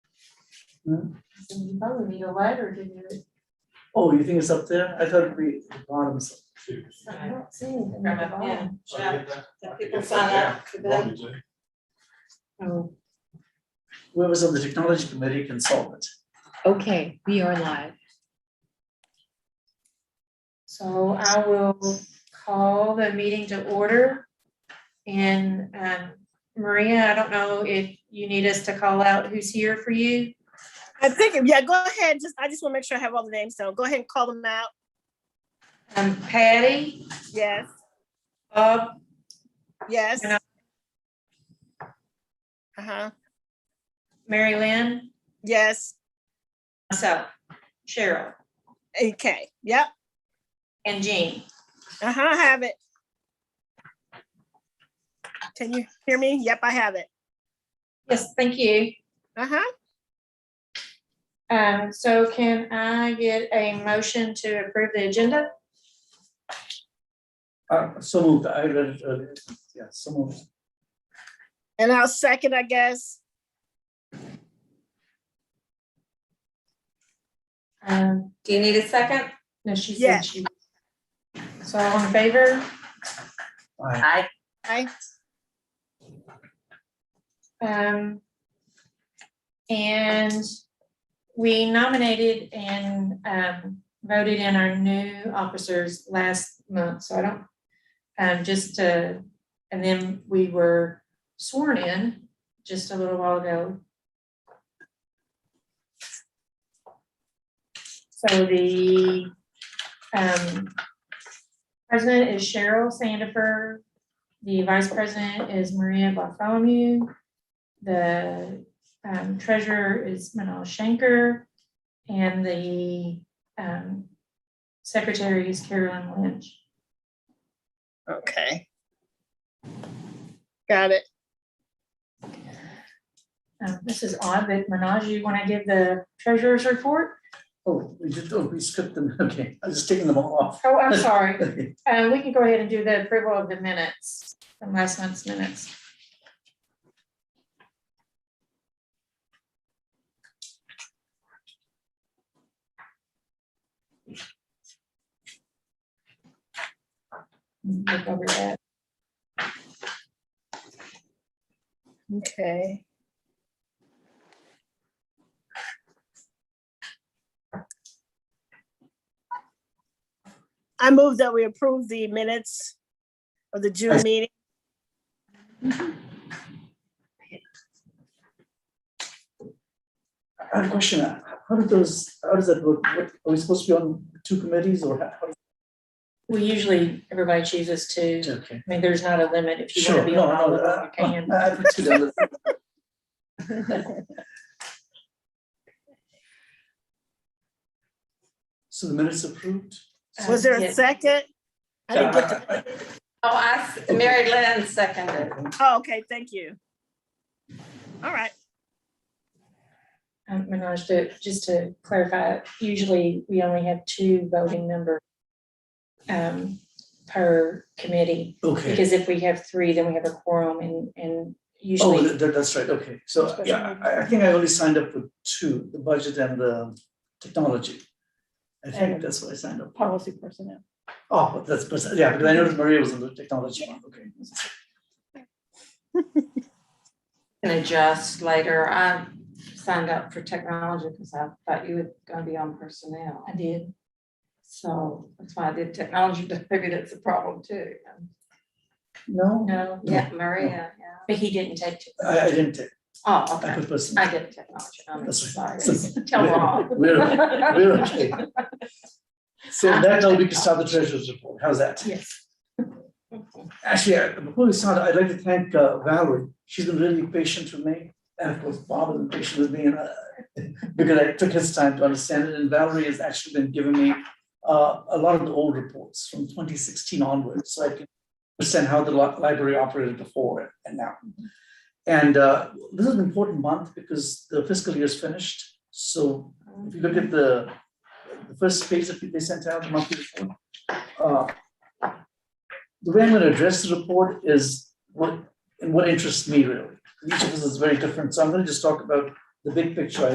So you probably need a lighter to do it. Oh, you think it's up there? I thought it'd be at the bottom. so- I don't see anything. Grab at it, the bottom. yeah. Yeah. That people sign up for that. Oh, Whoever's on the technology committee can solve it. Okay, we are live. So I will call the meeting to order. And um, Maria, I don't know if you need us to call out who's here for you. I think, yeah, go ahead. Just, I just want to make sure I have all the names down. Go ahead and call them out. Um, Patty, Yes, Bob, yes. And I- Uh-huh, Mary Lynn, yes. myself, Cheryl, Okay, yep, and Jean. uh-huh, I have it. Can you hear me? Yep, I have it. Yes, thank you. Uh-huh, Um, So can I get a motion to approve the agenda? Uh, so moved, I read it earlier. Yeah, so moved. and I'll second, I guess. Um, Do you need a second? No, she said Yes. she. So all in favor? Aye. I. I, Um, and we nominated and, um, voted in our new officers last month, so I don't, um, just, uh, and then we were sworn in just a little while ago. So the, um, president is Cheryl Sandifer, the vice president is Maria Bartholomew. The um, treasurer is Manal Shanker. And the um, secretary is Carolyn Lynch. okay. Got it. Um, This is odd, but Manal, you want to give the treasurer's report? Oh, we did, oh, we skipped them. Okay, I'm just taking them all off. Oh, I'm sorry. Okay. Uh, We can go ahead and do the approval of the minutes, from last month's minutes. Look over that. Okay. I move that we approve the minutes of the June meeting. I have a question. How do those, how does that work? What- Are we supposed to be on two committees or? how- how- We usually, everybody chooses to, Okay. I mean, there's not a limit. If you want Sure. to be No, on all no, of them, uh, you can. uh, I put two down. So the minutes approved? Was there Um, yeah. a second? I didn't get to, I- Oh, I, s- Mary Lynn seconded. I- oh, okay, thank you. All right, Um, Manoj, to, just to clarify, usually we only have two voting members um, per committee, Okay. because if we have three, then we have a quorum and, and Oh, usually, that, that- that's right, okay, so, yeah, I, I think I only signed up for two, the budget and the technology. I think And- that's what I signed up, for. Policy personnel. oh, but that's, pers- yeah, because I noticed Maria was on the technology one, okay. Can adjust later. I signed up for technology because I thought you were gonna be on personnel. I did. So that's why I did technology, but maybe that's a problem too. No, No, Yeah, Maria, yeah. but he didn't take. two. I, I didn't take, Oh, I okay. put personal. I did technology. I'm That's sorry. right. So- Tell we're- Rob. We're, we're okay. So that now we can start the treasurer's report, how's that? Yes. Actually, I- before we start, I'd like to thank uh, Valerie. She's been really patient with me. And of course, Bob has been patient with me and uh, because I took his time to understand it. And Valerie has actually been giving me uh, a lot of the old reports from 2016 onwards. So I can understand how the li- library operated before and now. And uh, this is an important month because the fiscal year is finished. So if you look at the, the first page that they sent out, the monthly report, uh, the way I'm gonna address the report is what, and what interests me really. Each of us is very different, so I'm gonna just talk about the big picture